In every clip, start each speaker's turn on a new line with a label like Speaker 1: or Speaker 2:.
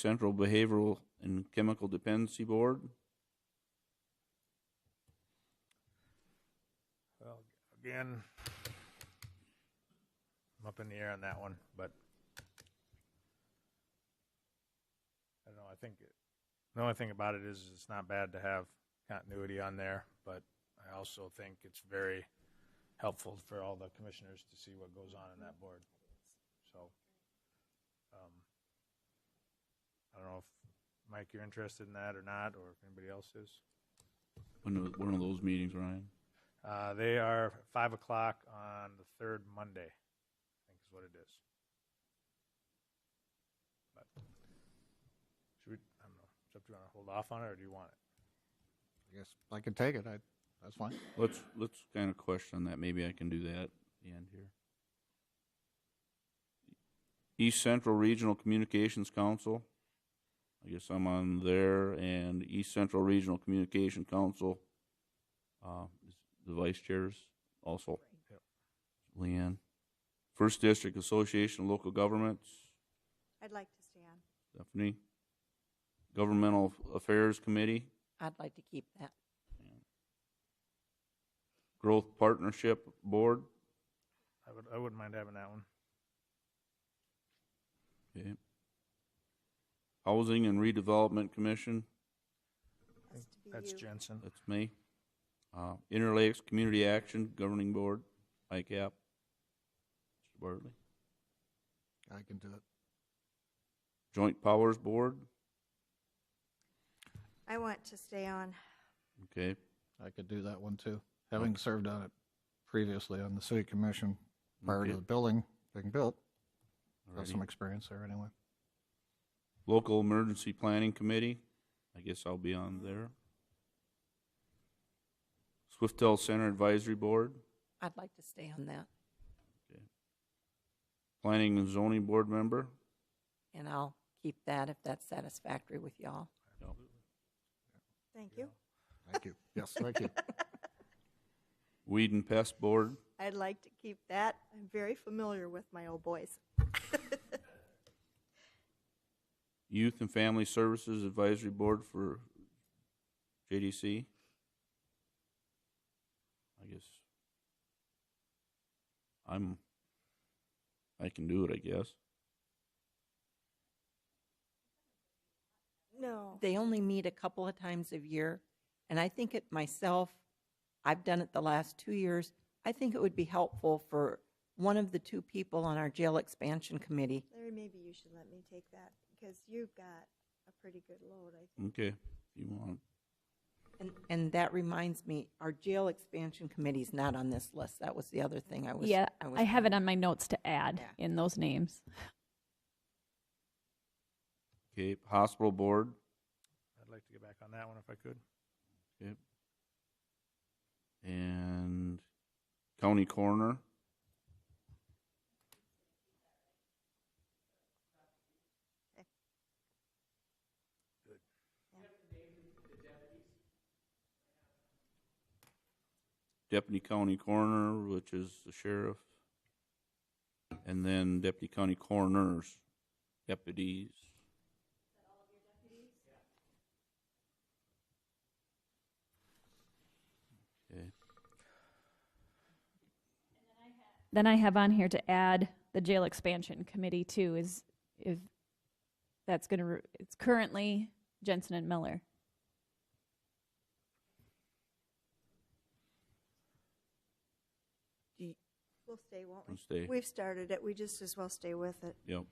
Speaker 1: Central Behavioral and Chemical Dependency Board.
Speaker 2: Well, again, I'm up in the air on that one, but I don't know. I think it, the only thing about it is it's not bad to have continuity on there, but I also think it's very helpful for all the commissioners to see what goes on in that board. So, um, I don't know if Mike, you're interested in that or not, or if anybody else is.
Speaker 1: One of, one of those meetings, Ryan.
Speaker 2: Uh, they are five o'clock on the third Monday, I think is what it is. But should we? I don't know. It's up to you want to hold off on it, or do you want it?
Speaker 3: I guess I can take it. I, that's fine.
Speaker 1: Let's, let's kind of question that. Maybe I can do that at the end here. East Central Regional Communications Council. I guess I'm on there, and East Central Regional Communication Council, uh, is the vice chairs also.
Speaker 2: Yep.
Speaker 1: Leanne. First District Association of Local Governments.
Speaker 4: I'd like to stay on.
Speaker 1: Stephanie. Governmental Affairs Committee,
Speaker 5: I'd like to keep that.
Speaker 1: Growth Partnership Board.
Speaker 2: I would. I wouldn't mind having that one.
Speaker 1: Okay. Housing and Redevelopment Commission,
Speaker 4: Has to be
Speaker 2: That's
Speaker 4: you.
Speaker 2: Jensen.
Speaker 1: that's me. Uh, Interlakes Community Action Governing Board, ICAP. Mr. Bartley.
Speaker 3: I can do it.
Speaker 1: Joint Powers Board,
Speaker 4: I want to stay on.
Speaker 1: okay.
Speaker 3: I could do that one too. Having served on it previously on the city commission prior to
Speaker 1: Okay.
Speaker 3: the building being built, got
Speaker 1: Alrighty.
Speaker 3: some experience there anyway.
Speaker 1: Local Emergency Planning Committee, I guess I'll be on there. Swiftel Center Advisory Board,
Speaker 5: I'd like to stay on that,
Speaker 1: Planning and Zoning Board Member,
Speaker 5: and I'll keep that if that's satisfactory with y'all.
Speaker 4: Thank you.
Speaker 3: Thank you. Yes, thank you.
Speaker 1: Weed and Pest Board,
Speaker 4: I'd like to keep that. I'm very familiar with my old boys.
Speaker 1: Youth and Family Services Advisory Board for JDC. I guess I'm, I can do it, I guess.
Speaker 4: No.
Speaker 5: They only meet a couple of times a year, and I think it myself, I've done it the last two years. I think it would be helpful for one of the two people on our jail expansion committee.
Speaker 4: Larry, maybe you should let me take that because you've got a pretty good load, I think.
Speaker 1: Okay, if you want.
Speaker 5: And, and that reminds me, our jail expansion committee's not on this list. That was the other thing I was.
Speaker 6: yeah,
Speaker 5: was-
Speaker 6: I have it on my notes to add
Speaker 5: Yeah.
Speaker 6: in those names.
Speaker 1: Okay, Hospital Board,
Speaker 2: I'd like to get back on that one if I could.
Speaker 1: okay. And County Coroner. Deputy County Coroner, which is the sheriff, and then Deputy County Coroners, deputies. Okay.
Speaker 6: Then I have on here to add the jail expansion committee too. Is if that's going to re- it's currently Jensen and Miller.
Speaker 4: We'll stay, won't
Speaker 1: We'll
Speaker 4: we?
Speaker 1: stay.
Speaker 4: We've started it. We just as well stay with it.
Speaker 1: Yep.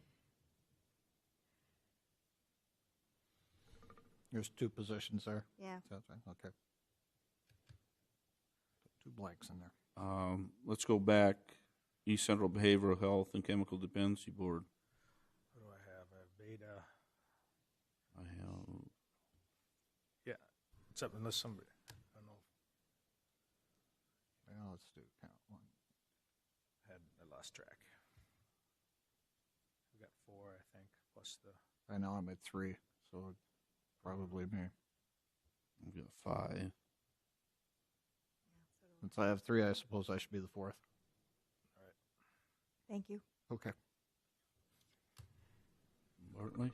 Speaker 3: There's two positions there.
Speaker 4: Yeah.
Speaker 3: Is that right? Okay. Two blanks in there.
Speaker 1: Um, let's go back, East Central Behavioral Health and Chemical Dependency Board.
Speaker 2: What do I have? I have Beta.
Speaker 1: I have,
Speaker 2: Yeah, it's up unless somebody. I don't know.
Speaker 3: Well, let's do count one.
Speaker 2: if I Had I lost track? We got four, I think, plus the.
Speaker 3: I know I'm at three, so probably me.
Speaker 1: I've got five.
Speaker 3: Since I have three, I suppose I should be the fourth.
Speaker 4: Thank you.
Speaker 3: Okay.
Speaker 1: Bartley?